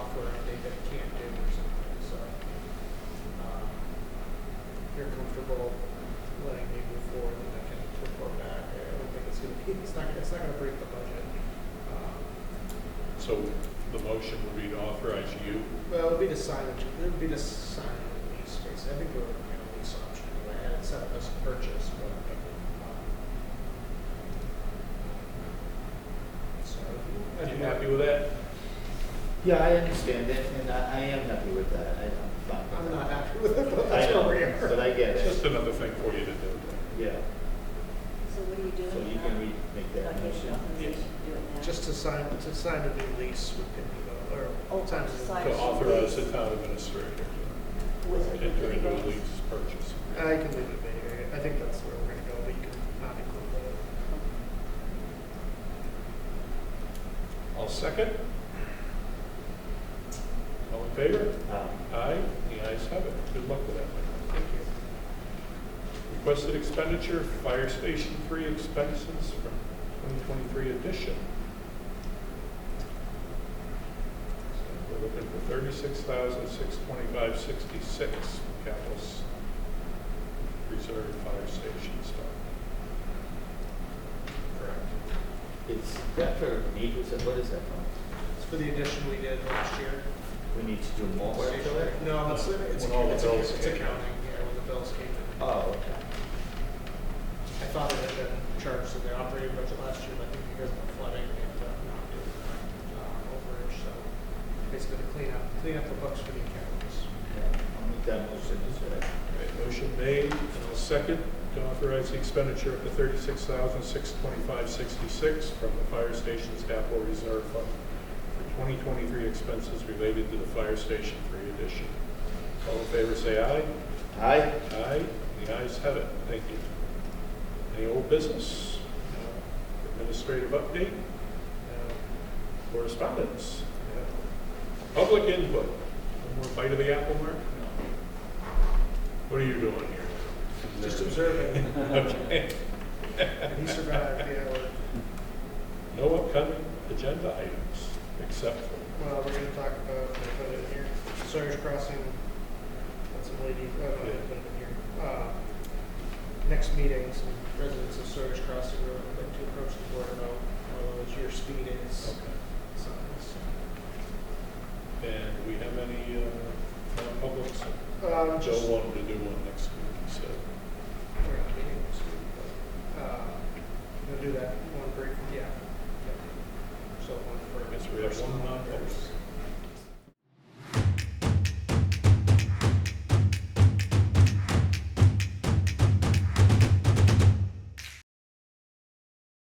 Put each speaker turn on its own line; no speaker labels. um, comfortable letting me move forward and I can report back. I don't think it's gonna be, it's not, it's not gonna break the budget. Um,
So the motion would be to authorize you,
Well, it'll be the signage, it'll be the sign in lease space. I think we're looking at a lease option anyway. I had set up as a purchase, but. um, So.
are you happy with that?
Yeah, I understand that, and I, I am happy with that, I, I'm fine with
I'm
that.
not happy with it, but
I
that's
know,
where we are.
But I get
It's just
it,
another thing for you to do.
yeah,
So what are you doing?
so you can re, make
Okay,
that motion.
authorization doing that.
Just to sign, to sign a new lease with Pitney Bowes, or
Oh,
times.
sign.
To authorize the town administrator
With
to
it,
enter into a
with it.
lease purchase.
I Uh, can leave it there. I think that's where we're gonna go, but you can not include that.
I'll second. All in favor?
Um,
Aye, the ayes have it. Good luck with that. Michael.
Thank you.
Requested expenditure, fire station three expenses from 2023 edition. So We're looking for 36,625.66 capital s- reserve fire station stuff. Correct.
Is that for need, is that, what is that for?
It's for the addition we did last year.
We need to do more work to it?
No, it's, it's,
When all the
it's,
bills
it's
came. Uh.
accounting, yeah, when the bills came in.
Oh, okay,
I thought it had been charged to the operating budget last year, but I think because of the flooding, it ended up not being uh, overage, so basically to clean up, clean up the books for the accountants.
yeah, I'll make that motion, is it?
Okay, motion made, and I'll second to authorize the expenditure of the thirty-six thousand, six twenty-five, sixty-six from the fire station's capital reserve fund for twenty twenty-three expenses related to the fire station three addition. All in favor, say aye.
Aye,
Aye, the ayes have it, thank you. Any old business? No. Administrative update? No. Correspondence? No. Public input? One more bite of the apple, Mark? What are you doing here?
Just observing,
Okay.
and he survived, you know,
No upcoming agenda items, except for,
well, we're gonna talk about, I put it in here, Sawyer's Crossing, that's a lady, oh, no, I didn't put it in here. Uh, Next meeting, some residents of Sawyer's Crossing are going to approach the board about how those your speed is,
okay.
so, so.
And we have any, uh, non-publics?
Um,
Joe
just-
wanted to do one next week, so,
We're not meeting this week, but, uh, we'll do that one break, yeah. So one for.
I guess we have one non-public.